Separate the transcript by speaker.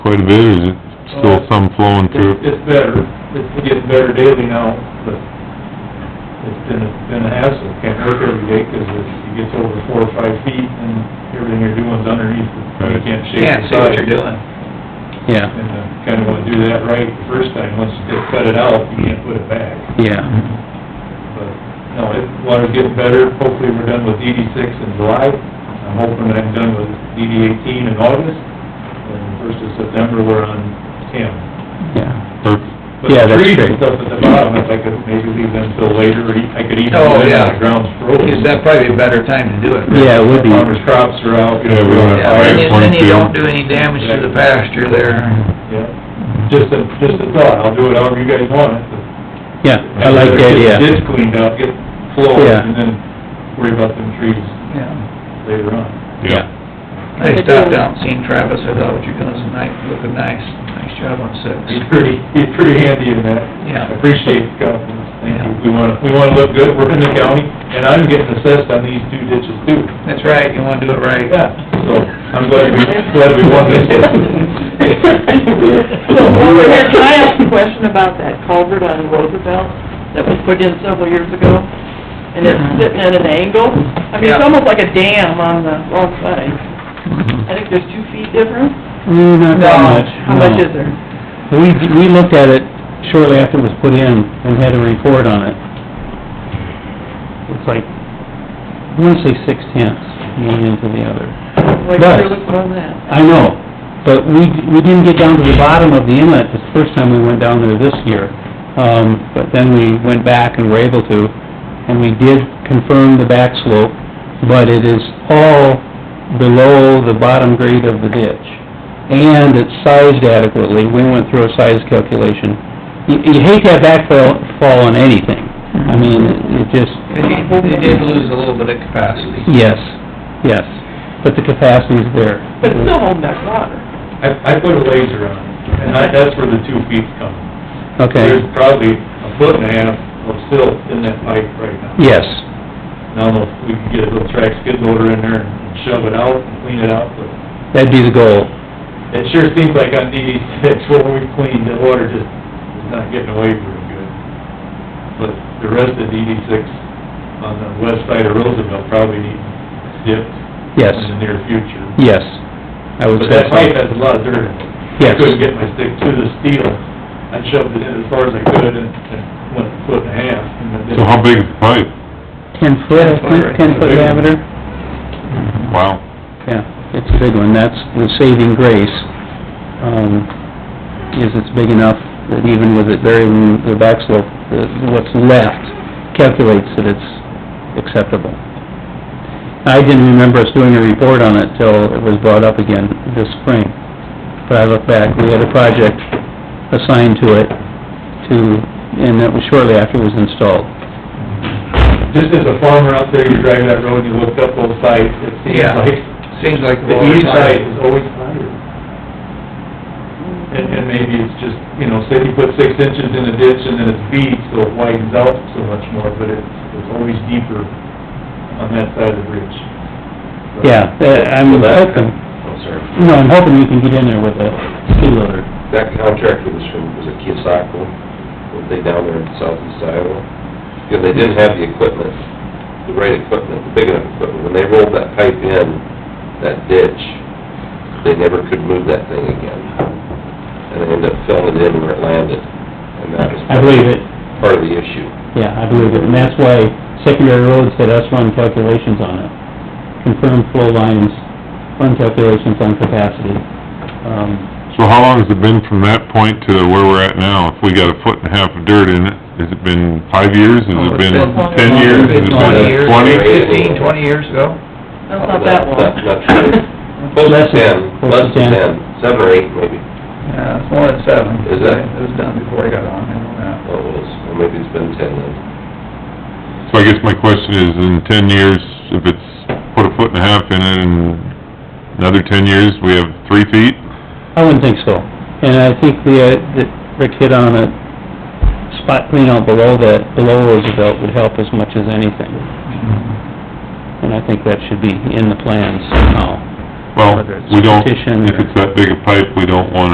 Speaker 1: quite a bit, or is it still some flowing
Speaker 2: It's,
Speaker 1: through?
Speaker 2: it's better, it's getting better daily now, but it's been, a- been a hassle, can't work every day, 'cause if it gets over four or five feet, and everything you're doing's underneath, it, you
Speaker 1: Right.
Speaker 2: can't shake
Speaker 3: Can't
Speaker 2: the
Speaker 3: see what
Speaker 2: side.
Speaker 3: you're doing. Yeah,
Speaker 2: And, uh, kinda wanna do that right the first time, once you just cut it out, you can't put it back,
Speaker 3: yeah.
Speaker 2: but, no, it, water's getting better, hopefully we're done with DD six in July, I'm hoping that I'm done with DD eighteen in August, and first of September, we're on ten.
Speaker 3: Yeah.
Speaker 1: Perfect.
Speaker 2: But
Speaker 3: Yeah,
Speaker 2: the
Speaker 3: that's
Speaker 2: trees
Speaker 3: great.
Speaker 2: and stuff at the bottom, if I could maybe leave them till later, or I could even
Speaker 3: Oh,
Speaker 2: leave them
Speaker 3: yeah.
Speaker 2: when the ground's
Speaker 3: Is
Speaker 2: frozen.
Speaker 3: that probably a better time to do it?
Speaker 4: Yeah, it would be.
Speaker 2: Farmer's crops are out, you
Speaker 1: Yeah,
Speaker 2: know,
Speaker 1: we
Speaker 2: we're-
Speaker 1: wanna-
Speaker 3: Yeah, and you- then you don't do any damage to the pasture there.
Speaker 2: yeah. Just a, just a thought, I'll do it however you guys want it.
Speaker 4: Yeah, I like that,
Speaker 2: Get the
Speaker 4: yeah.
Speaker 2: ditch cleaned out, get flowing,
Speaker 4: Yeah.
Speaker 2: and then worry about them trees
Speaker 3: Yeah.
Speaker 2: later on.
Speaker 1: Yeah,
Speaker 3: I stopped down, and seen Travis, I thought what you're doing is nice, looking nice, nice job on
Speaker 2: He's
Speaker 3: six.
Speaker 2: pretty, he's pretty handy in that.
Speaker 3: Yeah.
Speaker 2: I Appreciate the compliments, thank you.
Speaker 3: Yeah.
Speaker 2: We wanna, we wanna look good, we're in the county, and I'm getting assessed on these two ditches too.
Speaker 3: That's right, you wanna do it right.
Speaker 2: Yeah, so, I'm glad we, glad we won this one.
Speaker 5: So, while we're here, can I ask a question about that culvert on Roosevelt that was put in several years ago? And it's sitting at an angle? I mean, it's
Speaker 3: Yeah.
Speaker 5: almost like a dam on the wrong side. I think there's two feet difference?
Speaker 4: Mm, not that much.
Speaker 5: How much is there?
Speaker 4: We, we looked at it shortly after it was put in and had a report on it. It's like, I wanna say six tenths, one into the other.
Speaker 5: Like,
Speaker 4: But-
Speaker 5: you're looking on that.
Speaker 4: I know, but we, we didn't get down to the bottom of the inlet the first time we went down there this year. Um, but then we went back and were able to, and we did confirm the back slope, but it is all below the bottom grade of the ditch. And it's sized adequately, we went through a size calculation. You, you hate to have backfall, fall on anything, I mean, it just,
Speaker 3: They did- they did lose a little bit of capacity.
Speaker 4: yes, yes, but the capacity is there.
Speaker 5: But it's still holding that water.
Speaker 2: I, I put a laser on, it, and I, that's where the two feet come.
Speaker 4: Okay.
Speaker 2: There's probably a foot and a half of silt in that pipe right now.
Speaker 4: Yes,
Speaker 2: Now, if we can get a little track skid loader in there and shove it out, and clean it out, but
Speaker 4: that'd be the goal.
Speaker 2: it sure seems like on DD six, where we cleaned, the water just is not getting away very good. But the rest of DD six on the west side of Roosevelt probably needs dipped
Speaker 4: Yes,
Speaker 2: in the near future.
Speaker 4: yes, I would
Speaker 2: Mm-hmm. But
Speaker 4: say
Speaker 2: that
Speaker 4: so.
Speaker 2: pipe has a lot of dirt in it. I
Speaker 4: Yes.
Speaker 2: couldn't get my stick to the steel. I shoved it in as far as I could and and went a foot and a half. and then
Speaker 1: so how big is the pipe?
Speaker 4: Ten foot, I think, ten foot diameter?
Speaker 1: Wow.
Speaker 4: Yeah, it's a big one, that's the saving grace, um, is it's big enough that even with it burying the back slope, the, what's left calculates that it's acceptable. I didn't remember us doing a report on it till it was brought up again this spring, but I look back, we had a project assigned to it to, and that was shortly after it was installed.
Speaker 2: Just as a farmer out there, you drive that road, you look up both sides, it seems
Speaker 3: Yeah.
Speaker 2: like
Speaker 3: Seems like.
Speaker 2: the east side is always higher. And, and maybe it's just, you know, say you put six inches in a ditch and then it's beat, so it widens out so much more, but it's, it's always deeper on that side of the bridge. So-
Speaker 4: Yeah, uh, I'm
Speaker 6: Well, that-
Speaker 4: hoping.
Speaker 6: Oh, sorry.
Speaker 4: No, I'm hoping we can get in there with a skid loader.
Speaker 6: That contract was from, was it Kiyosako, were they down there in southeast Iowa? Because they didn't have the equipment, the right equipment, the big enough equipment. When they rolled that pipe in, that ditch, they never could move that thing again. And they ended up filling it in where it landed, and that was.
Speaker 4: I believe it,
Speaker 6: Part of the issue.
Speaker 4: yeah, I believe it, and that's why secondary roads had us run calculations on it. Confirmed flow lines, run calculations on capacity. Um,
Speaker 1: So how long has it been from that point to where we're at now? If we got a foot and a half of dirt in it, has it been five years?
Speaker 3: Oh,
Speaker 1: Has it been ten years? Has it
Speaker 3: Twenty years,
Speaker 1: been twenty?
Speaker 3: fifteen, twenty years ago.
Speaker 5: That's not that long.
Speaker 6: Not- not true. Close
Speaker 4: Less
Speaker 6: to
Speaker 4: than-
Speaker 6: ten, less
Speaker 4: close to
Speaker 6: than
Speaker 4: 10.
Speaker 6: ten, seven or eight maybe.
Speaker 3: Yeah, it's more than seven.
Speaker 6: Is it?
Speaker 3: It was done before I got on, I know that.
Speaker 6: Oh, it was, or maybe it's been ten then.
Speaker 1: So I guess my question is, in ten years, if it's put a foot and a half in it, and another ten years, we have three feet?
Speaker 4: I wouldn't think so, and I think the, uh, that Rick hit on a spot clean out below that, below Roosevelt would help as much as anything. And I think that should be in the plans somehow.
Speaker 1: Well,
Speaker 4: Whether it's
Speaker 1: we don't,
Speaker 4: petition
Speaker 1: if
Speaker 4: or-
Speaker 1: it's that big a pipe, we don't wanna